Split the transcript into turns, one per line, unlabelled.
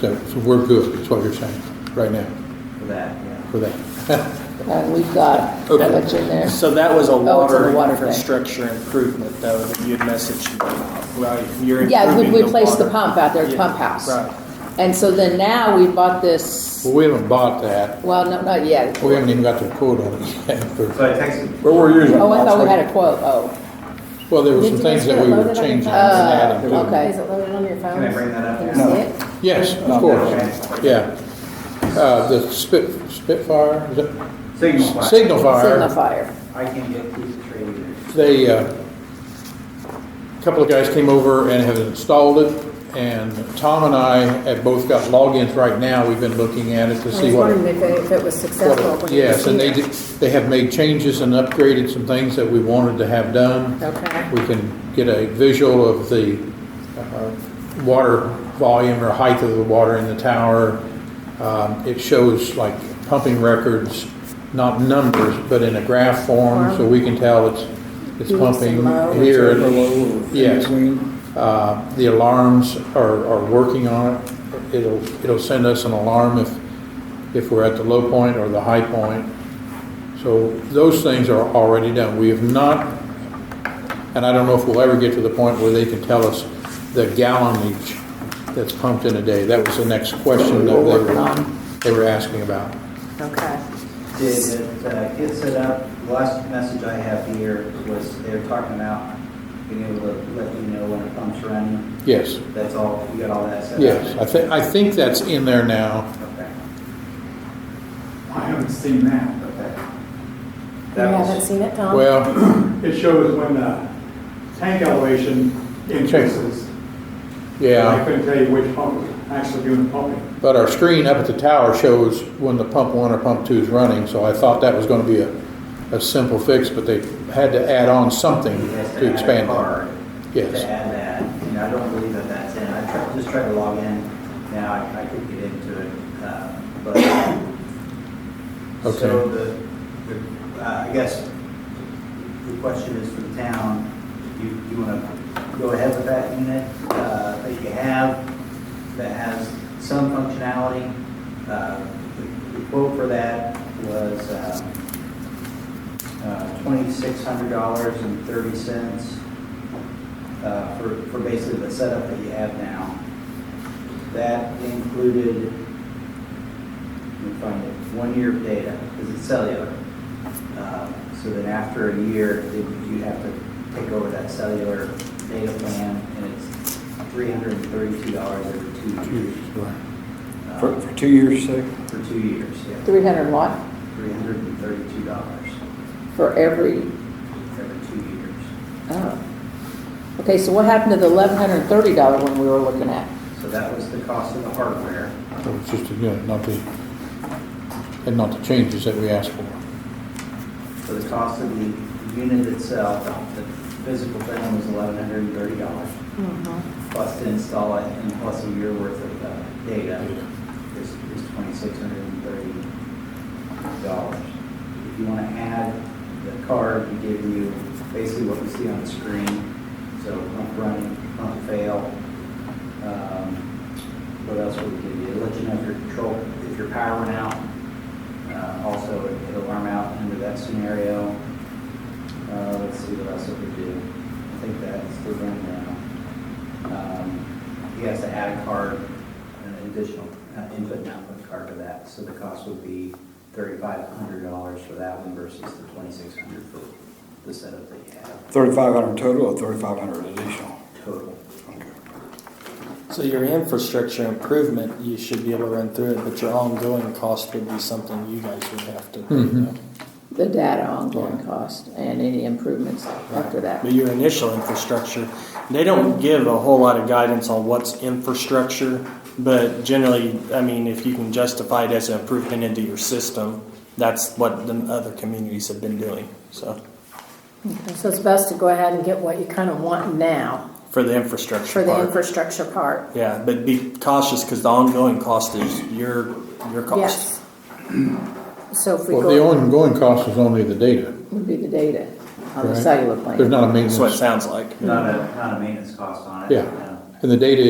So, so we're good, is what you're saying, right now,
for that, yeah.
for that.
And we've got
Okay.
what's in there.
So that was a
Oh, it's on the
water
water thing.
infrastructure improvement, though, that you had messaged me about. Right, you're
Yeah, we
improving the
replaced the
water.
pump out there, at
Yeah,
pump house.
Right.
And so then now we bought this,
Well, we haven't bought that,
well, no, not yet.
we haven't even got the quote on it yet, but-
So I texted,
Where were yours?
Oh, I thought we had a quote, oh,
well, there were some
Did you guys
things that
get
we were
loaded on your
changing and adding
phone? Oh,
to.
okay.
it.
Is it loaded on your phone?
Can I bring that up
Can you
now?
see it?
Yes, of course, yeah. Uh, the Spit, Spitfire, is it-
Signal Fire.
Signal
signal
Fire,
fire.
I can get these traded.
they, uh, a couple of guys came over and have installed it, and Tom and I have both got logins right now, we've been looking at it to
I
see
was
what.
wondering if it- if it was successful. when you
Yes, and they,
received
did- they have made changes and upgraded some things that we wanted to have done.
it. Okay.
We can get a visual of the uh, water volume or height of the water in the tower. Um, It shows like pumping records, not numbers, but in a graph form, so we can tell it's, it's
You want some
pumping
low?
here.
Or low or in
Yes.
between?
Uh, The alarms are, are working on it. It'll, it'll send us an alarm if, if we're at the low point or the high point. So those things are already done. We have not, and I don't know if we'll ever get to the point where they can tell us the gallonage that's pumped in a day. That was the next question that they were, they were asking about.
Okay.
Did it uh, get set up? The last message I have here was they're talking about being able to let you know when a pump's running.
Yes,
That's all, you got all that set up?
yes. I think, I think that's in there now.
Okay,
I haven't seen that.
okay.
You
That
haven't
was,
seen it,
Um,
Tom?
Well,
It shows when the tank elevation increases. I
yeah,
couldn't tell you which pump was actually doing the pumping.
but our screen up at the tower shows when the pump one or pump two is running, so I thought that was gonna be a, a simple fix, but they had to add on something
you guys
to
to add a
expand that.
card.
Yes.
To add that, and I don't believe that that's in. I tried, just tried to log in. Now I, I could get into it, uh, but.
Okay.
So the, the, uh, I guess the question is for the town, you, you wanna go ahead with that unit, uh, that you have, that has some functionality? Uh, the- The quote for that was, um, twenty-six hundred dollars and thirty cents uh, for, for basically the setup that you have now. That included, let me find it, one year of data, because it's cellular. Uh, So then after a year, then you have to take over that cellular data plan, and it's three hundred and thirty-two dollars every two years. uh,
For, for two years, say?
For two years, yeah,
Three hundred watt
three hundred and thirty-two dollars
for every,
every two years.
oh. Okay, so what happened to the eleven hundred and thirty dollar one we were looking at?
So that was the cost of the hardware.
It was just, you know, not the, and not the changes that we asked for.
So the cost of the unit itself, the physical thing was eleven hundred and thirty dollars. Plus to install it and plus a year worth of uh, data is, is twenty-six hundred and thirty dollars. If you want to add the card, we give you basically what we see on the screen. So pump running, pump fail. Um, What else would we give you? It'll Let you know if your control, if your power went out, uh, Also, it- it'll alarm out under that scenario. Uh, Let's see what else it could do. I think that's the rundown. Um, He has to add a card, an additional uh, input and output card to that, so the cost would be thirty-five hundred dollars for that one versus the twenty-six hundred for the setup that you have
Thirty-five hundred total or thirty-five hundred additional?
total.
Okay.
So your infrastructure improvement, you should be able to run through it, but your ongoing cost would be something you guys would have to.
Mhm.
The data ongoing cost and any improvements after that.
But your initial infrastructure, they don't give a whole lot of guidance on what's infrastructure, but generally, I mean, if you can justify it as an improvement into your system, that's what the other communities have been doing. So
So it's best to go ahead and get what you kind of want now
for the infrastructure
for the
part.
infrastructure part.
yeah, but be cautious because the ongoing cost is your your cost.
Yes. So if we
Well, the
go,
ongoing cost is only the data,
Would be the data on the
Right.
cellular
there's
plan.
not a
That's what it
maintenance.
sounds like.
Not a, not a maintenance cost on it.
Yeah,
no.
and the data